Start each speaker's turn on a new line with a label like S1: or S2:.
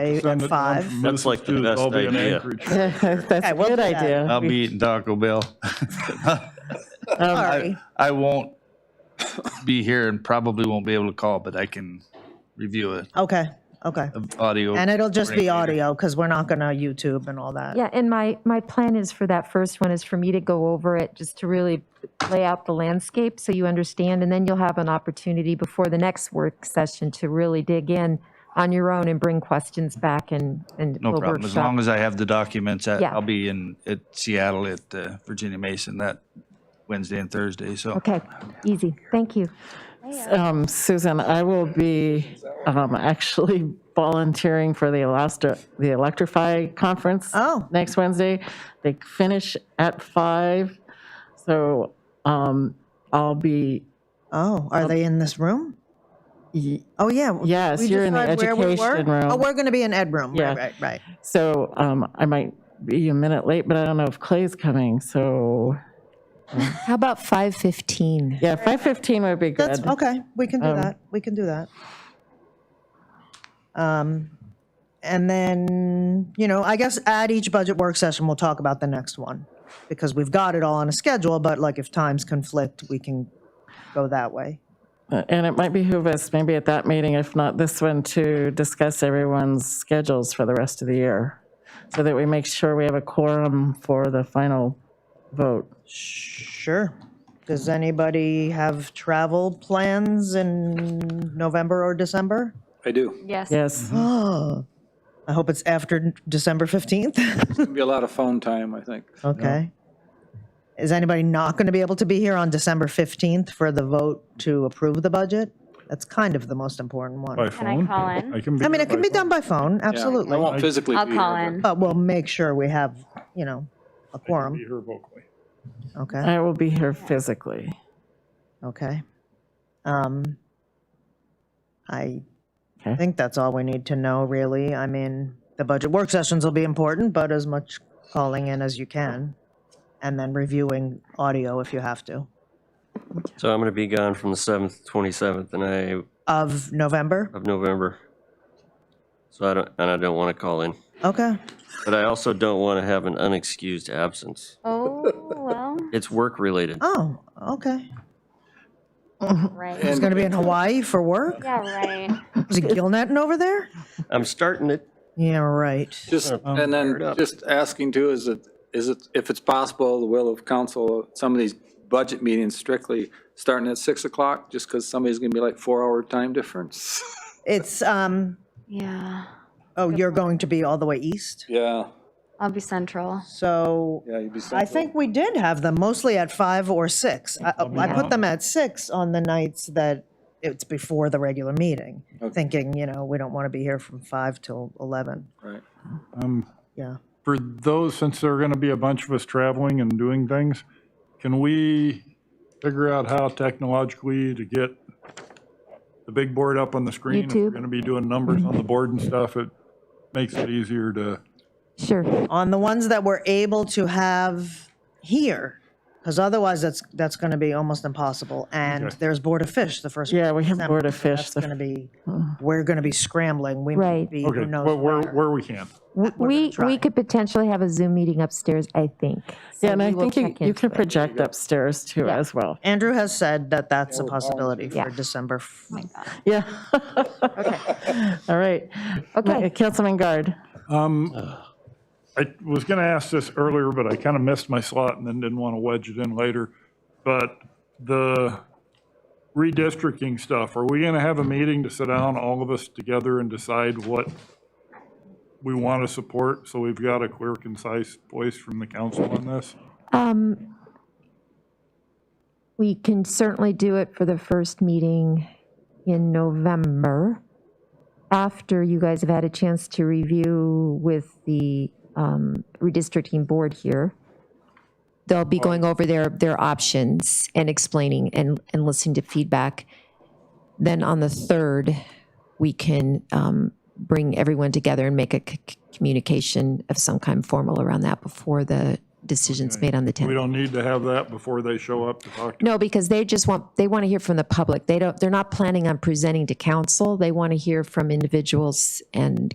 S1: eight
S2: Send
S1: and
S2: it-
S1: five.
S2: I'm-
S3: That's like the
S2: I'll
S3: best
S2: be in
S3: idea.
S2: Anchorage.
S4: That's
S1: Okay,
S4: a
S1: we'll
S4: good
S1: do that.
S4: idea.
S5: I'll be eating Taco Bell.
S4: Um,
S1: Sorry.
S5: I won't be here and probably won't be able to call, but I can review it,
S1: Okay, okay.
S5: audio.
S1: And it'll just be
S5: Great.
S1: audio because we're not going to YouTube and all that.
S6: Uh, Yeah, and my, my plan is for that first one is for me to go over it, just to really lay out the landscape so you understand, and then you'll have an opportunity before the next work session to really dig in on your own and bring questions back and, and
S5: No
S6: we'll
S5: problem. As
S6: workshop.
S5: long as I have the documents, I-
S6: Yeah.
S5: I'll be in, at Seattle at uh, Virginia Mason that Wednesday and Thursday, so.
S6: Okay, easy, thank you.
S4: um, Susan, I will be um, actually volunteering for the Elasta- the Electrify Conference
S1: Oh.
S4: next Wednesday. They finish at five, so um, I'll be,
S1: Oh, are they in this room?
S4: y-
S1: Oh, yeah.
S4: Um, Yes,
S1: We
S4: you're in the
S1: decide where we were?
S4: education room.
S1: Oh, we're going to be in Ed room.
S4: Yeah.
S1: Right, right, right.
S4: so um, I might be a minute late, but I don't know if Clay's coming, so,
S6: How about 5:15?
S4: yeah, 5:15 would be
S1: That's,
S4: good.
S1: okay, we can do that. We can do that. Um, And then, you know, I guess at each budget work session, we'll talk about the next one because we've got it all on a schedule, but like if times conflict, we can go that way.
S4: And it might behoove us, maybe at that meeting, if not this one, to discuss everyone's schedules for the rest of the year, so that we make sure we have a quorum for the final vote.
S1: Sure. Does anybody have travel plans in November or December?
S7: I do.
S8: Yes.
S4: Yes,
S1: Oh, I hope it's after December 15th.
S7: It's gonna be a lot of phone time, I think.
S1: Okay. Is anybody not going to be able to be here on December 15th for the vote to approve the budget? That's kind of the most important
S2: By
S1: one.
S8: Can I
S2: phone?
S8: call in?
S2: can be
S1: I mean,
S2: there
S1: it can
S2: by
S1: be
S2: phone.
S1: done by phone,
S7: Yeah, I
S1: absolutely.
S7: won't physically
S8: I'll
S7: be
S8: call
S7: here,
S8: in.
S1: But we'll make sure we have, you know, a
S2: I can Be
S1: quorum.
S2: here vocally.
S1: Okay,
S4: I will be here physically.
S1: okay. Um, I
S4: Okay.
S1: think that's all we need to know, really. I mean, the budget work sessions will be important, but as much calling in as you can. And then reviewing audio if you have to.
S3: So I'm going to be gone from the 7th to 27th and I,
S1: Of November?
S3: of November. So I don't, and I don't want to call in.
S1: Okay.
S3: But I also don't want to have an unexcused absence.
S8: Oh, well,
S3: It's work related.
S1: Oh, okay.
S8: right.
S1: He's going to be in Hawaii for work?
S8: Yeah, right.
S1: Is it Gilnetting over there?
S3: I'm starting it.
S1: Yeah, right.
S7: Just, and
S3: it
S7: then
S3: up.
S7: just asking too, is it, is it, if it's possible, the will of council, some of these budget meetings strictly starting at 6 o'clock, just because somebody's gonna be like four-hour time difference?
S1: It's, um,
S8: Yeah.
S1: oh, you're going to be all the way east?
S7: Yeah,
S8: I'll be central.
S1: So
S7: yeah, you'd be.
S1: I
S7: central.
S1: think we did have them mostly at five or six. I I put them at six on the nights that it's before the regular meeting,
S7: Okay.
S1: thinking, you know, we don't want to be here from five till 11.
S7: Right.
S2: Um,
S1: Yeah.
S2: For those, since there are going to be a bunch of us traveling and doing things, can we figure out how technologically to get the big board up on the screen? If we're
S6: YouTube.
S2: going to be doing numbers on the board and stuff, it makes it easier to,
S6: Sure,
S1: On the ones that we're able to have here, because otherwise that's, that's going to be almost impossible. And
S2: Okay.
S1: there's Board of Fish the first.
S4: Yeah, we have
S1: December.
S4: Board of Fish
S1: That's
S4: the
S1: going to be, we're going to be scrambling. We might
S6: Right.
S1: be,
S2: okay,
S1: who knows
S2: but where,
S1: where.
S2: where we can.
S6: we,
S1: try.
S6: we could potentially have a Zoom meeting upstairs, I think. So
S4: Yeah, and I
S6: we will
S4: think you
S6: check
S4: you
S6: into
S4: could
S6: it.
S4: project upstairs too
S6: Yeah.
S4: as well.
S1: Andrew has said that that's
S2: Oh,
S1: a possibility for
S6: Yeah.
S1: December f-
S4: Yeah. All right.
S6: Okay.
S4: Councilman Guard.
S2: I was going to ask this earlier, but I kind of missed my slot and then didn't want to wedge it in later. But the redistricting stuff, are we going to have a meeting to sit down, all of us together, and decide what we want to support? So we've got a clear, concise voice from the council on this?
S6: Um, We can certainly do it for the first meeting in November, after you guys have had a chance to review with the um, redistricting board here. They'll be going over their, their options and explaining and, and listening to feedback. Then on the 3rd, we can um, bring everyone together and make a c- c- communication of some kind formal around that before the decision's made on the 10th.
S2: We don't need to have that before they show up to talk to
S6: No, because they just want, they want to hear from the public. They don't, they're not planning on presenting to council. They want to hear from individuals and